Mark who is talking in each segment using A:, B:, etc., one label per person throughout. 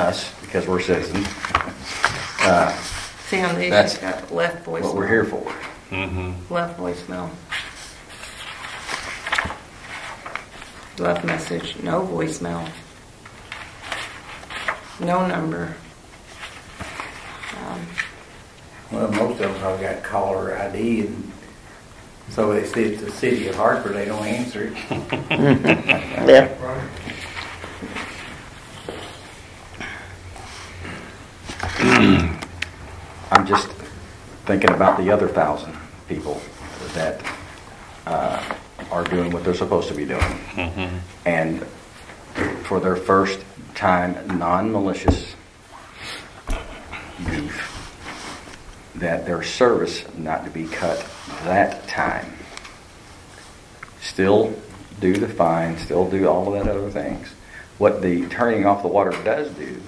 A: us, because we're citizens,
B: See how these
A: That's
B: have got left voicemail?
A: what we're here for.
B: Left voicemail. Left message, no voicemail. No number. Um,
C: Well, most of them probably got caller ID and so they see it's the city of Hartford, they don't answer it.
D: Yeah.
A: I'm just thinking about the other thousand people that uh, are doing what they're supposed to be doing.
E: Mm-hmm.
A: And for their first time, non-malicious beef, that their service not to be cut that time. Still do the fine, still do all of that other things. What the turning off the water does do,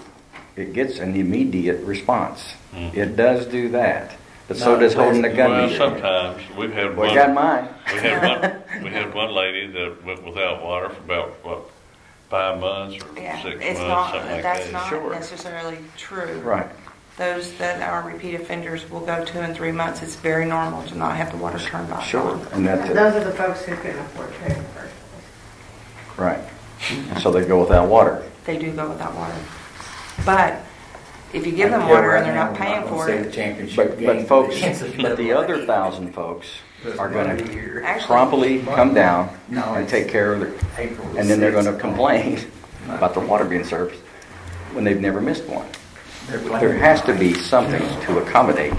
A: it gets an immediate response. It does do that, but so
C: Not
A: does holding the gun. to
E: Mm-hmm. Well,
A: your head.
E: sometimes, we've had
A: Well,
E: one,
A: I got mine.
E: we had one, we had one lady that went without water for about, what, five months or
B: Yeah,
E: six months,
B: it's
E: something
B: not,
E: like
B: that's
E: that.
B: not
A: Sure.
B: necessarily true.
A: Right.
B: Those that are repeat offenders will go two and three months. It's very normal to not have the water turned back on.
A: Sure. And that's it.
F: Those are the folks who couldn't afford food in the first
A: Right. So they go without water.
B: They do go without water. But if you give them
C: Yeah,
B: water
C: right
B: and they're not
C: now, I'm
B: paying
C: gonna
B: for
C: say the
B: it,
C: Championship
A: But,
C: game.
A: but folks,
C: It's a
A: but the
C: little-
A: other thousand folks are going
C: Doesn't
A: to
C: matter.
B: Actually-
A: promptly come down
C: No,
A: and
C: it's
A: take care of their,
C: April
A: and then they're going to
C: sixth.
A: complain about the water being served when they've never missed one.
C: They're
A: There has to be something to accommodate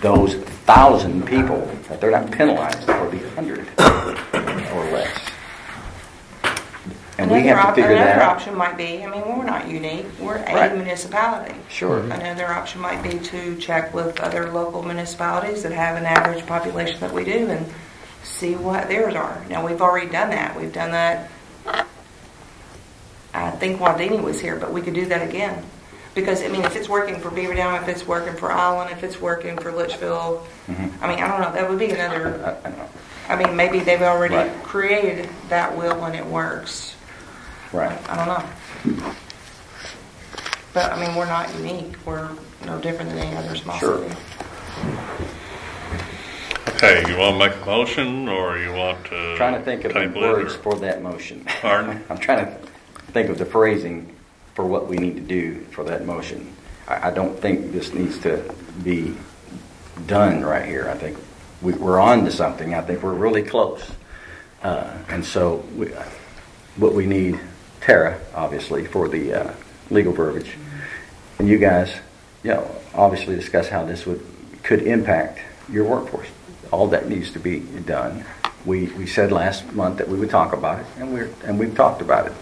A: those thousand people, that they're not penalized for the hundred or less. And we
B: Another
A: have to
B: op-
A: figure that
B: Another
A: out.
B: option might be, I mean, we're not unique, we're
A: Right.
B: a municipality.
A: Sure. Mhm.
B: Another option might be to check with other local municipalities that have an average population that we do and see what theirs are. Now, we've already done that, we've done that, I think Wadena was here, but we could do that again. Because, I mean, if it's working for Beaver Dam, if it's working for Island, if it's working for Litchfield, I mean, I don't know, that would be another
A: I- Mm-hmm. I know.
B: I mean, maybe they've already
A: Right.
B: created that will and it works.
A: Right.
B: I don't know. But, I mean, we're not unique. We're no different than any other small
A: Sure.
B: city.
E: Okay, you want to make a motion, or you want to?
A: Trying to think of the
E: table it,
A: words
E: or-
A: for that motion.
E: Pardon?
A: I'm trying to think of the phrasing for what we need to do for that motion. I, I don't think this needs to be done right here. I think we, we're on to something. I think we're really close. Uh, and so we, uh, what we need, Tara, obviously, for the uh, legal verbiage, and you guys, you know, obviously discuss how this would, could impact your workforce. All that needs to be done. We, we said last month that we would talk about it, and we're, and we've talked about it.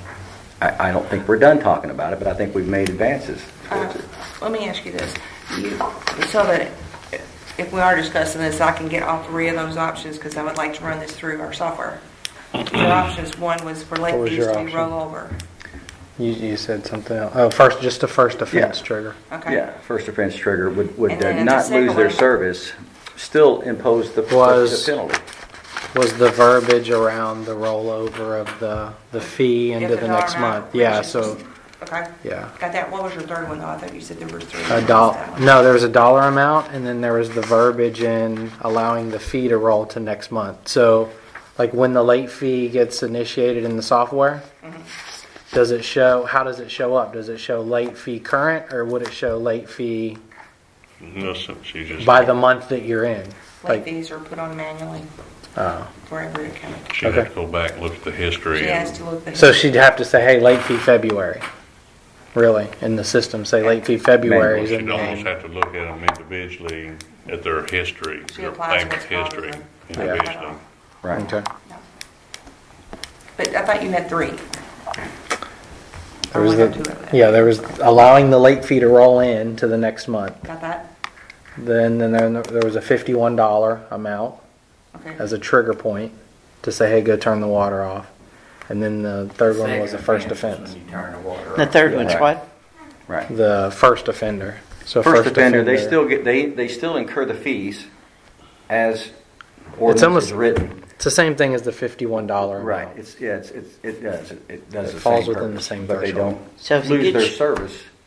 A: I, I don't think we're done talking about it, but I think we've made advances towards
B: Uh,
A: it.
B: Let me ask you this. You- So that if we are discussing this, I can get all three of those options because I would like to run this through our software.
A: Mm-hmm.
B: Your options, one was for
G: What was
B: Lakeview
G: your
B: to be
G: option?
B: rollover.
G: You, you said something else. Oh, first, just the first offense
A: Yeah.
G: trigger.
B: Okay.
A: Yeah, first offense trigger would, would
B: And
A: uh,
B: then the
A: not lose
B: second
A: their
B: one-
A: service, still impose the the
G: Was-
A: penalty.
G: Was the verbiage around the rollover of the, the fee
B: If
G: into
B: the
G: the
B: dollar
G: next
B: amount
G: month? Yeah,
B: reaches-
G: so
B: Okay.
G: Yeah.
B: Got that. What was your third one though? I thought you said there were three.
G: a dollar, no, there was a dollar amount and then there was the verbiage in allowing the fee to roll to next month. So like when the late fee gets initiated in the software,
B: Mm-hmm.
G: does it show, how does it show up? Does it show late fee current or would it show late fee
E: No, so she just,
G: by the month that you're in?
B: Late
G: Like,
B: fees are put on manually
G: oh.
B: for every account.
E: she had to
G: okay.
E: go back and look at the history.
B: She
E: and-
B: has to look. at-
G: So she'd have to say, hey, late fee February, really, in the system, say late fee February
E: Well,
G: is
E: She'd
G: in
E: almost
G: May.
E: have to look at them individually, at their history,
B: She
E: their
B: applies
E: payment
B: what's called
E: history
B: the-
G: Yeah.
E: individually.
A: Right.
G: Okay.
B: But I thought you had three.
G: There was
B: Or one or two of
G: the,
B: them.
G: yeah, there was allowing the late fee to roll in to the next month.
B: Got that?
G: Then, then there there was a fifty-one dollar amount
B: Okay.
G: as a trigger point to say, hey, go turn the water off. And then the third one was the first
C: Second
G: offense,
C: is when you turn the water
D: The
C: off.
D: third one's
A: Right.
D: what?
A: Right.
G: the first offender. So
A: First offender, they still get, they, they still incur the fees as
G: It's
A: ordinance
G: almost-
A: is written.
G: It's It's the same thing as the fifty-one dollar
A: Right,
G: amount.
A: it's, yeah, it's, it's- it does, it- it does
G: It
A: the same
G: falls within the
A: purpose,
G: same
A: But they
G: threshold.
A: don't
D: So if you
A: lose
D: get
A: their
D: your-
A: service.